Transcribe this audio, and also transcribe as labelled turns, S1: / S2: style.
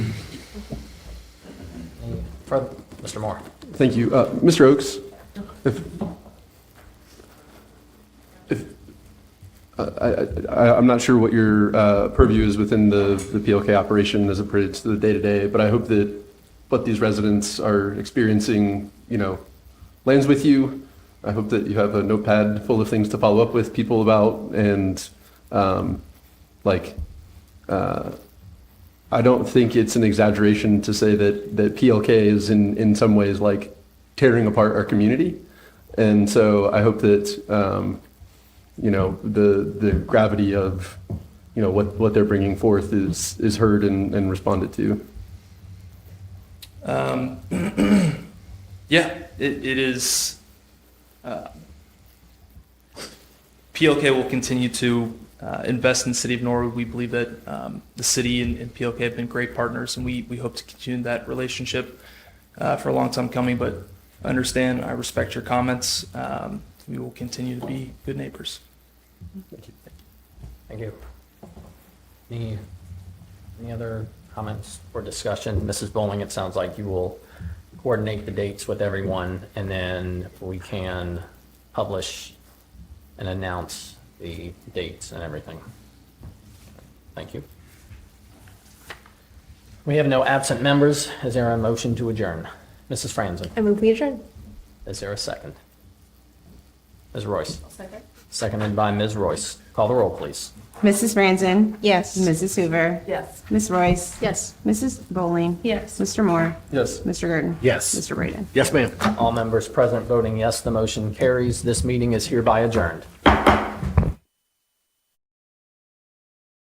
S1: Further, Mr. Moore.
S2: Thank you. Uh, Mr. Oakes, if, if, uh, I, I, I- I'm not sure what your uh, purview is within the, the PLK operation as it pertains to the day-to-day, but I hope that what these residents are experiencing, you know, lands with you. I hope that you have a notepad full of things to follow up with people about and, um, like, uh, I don't think it's an exaggeration to say that, that PLK is in, in some ways like tearing apart our community. And so I hope that, um, you know, the, the gravity of, you know, what, what they're bringing forth is, is heard and, and responded to.
S3: Um, yeah, it, it is. Uh, PLK will continue to uh, invest in the city of Norwood. We believe that um, the city and, and PLK have been great partners, and we, we hope to continue that relationship uh, for a long time coming. But I understand, I respect your comments. Um, we will continue to be good neighbors.
S1: Thank you. Any, any other comments or discussion? Mrs. Bowling, it sounds like you will coordinate the dates with everyone and then we can publish and announce the dates and everything. Thank you. We have no absent members. Is there a motion to adjourn? Mrs. Franzen,
S4: I move we adjourn.
S1: is there a second? Ms. Royce,
S4: Second.
S1: seconded by Ms. Royce. Call the roll, please.
S5: Mrs. Franzen?
S4: Yes.
S5: Mrs. Hoover?
S4: Yes.
S5: Ms. Royce?
S4: Yes.
S5: Mrs. Bowling?
S4: Yes.
S5: Mr. Moore?
S2: Yes.
S5: Mr. Gurdon?
S6: Yes.
S5: Mr. Braden?
S6: Yes, ma'am.
S1: All members present voting yes, the motion carries. This meeting is hereby adjourned.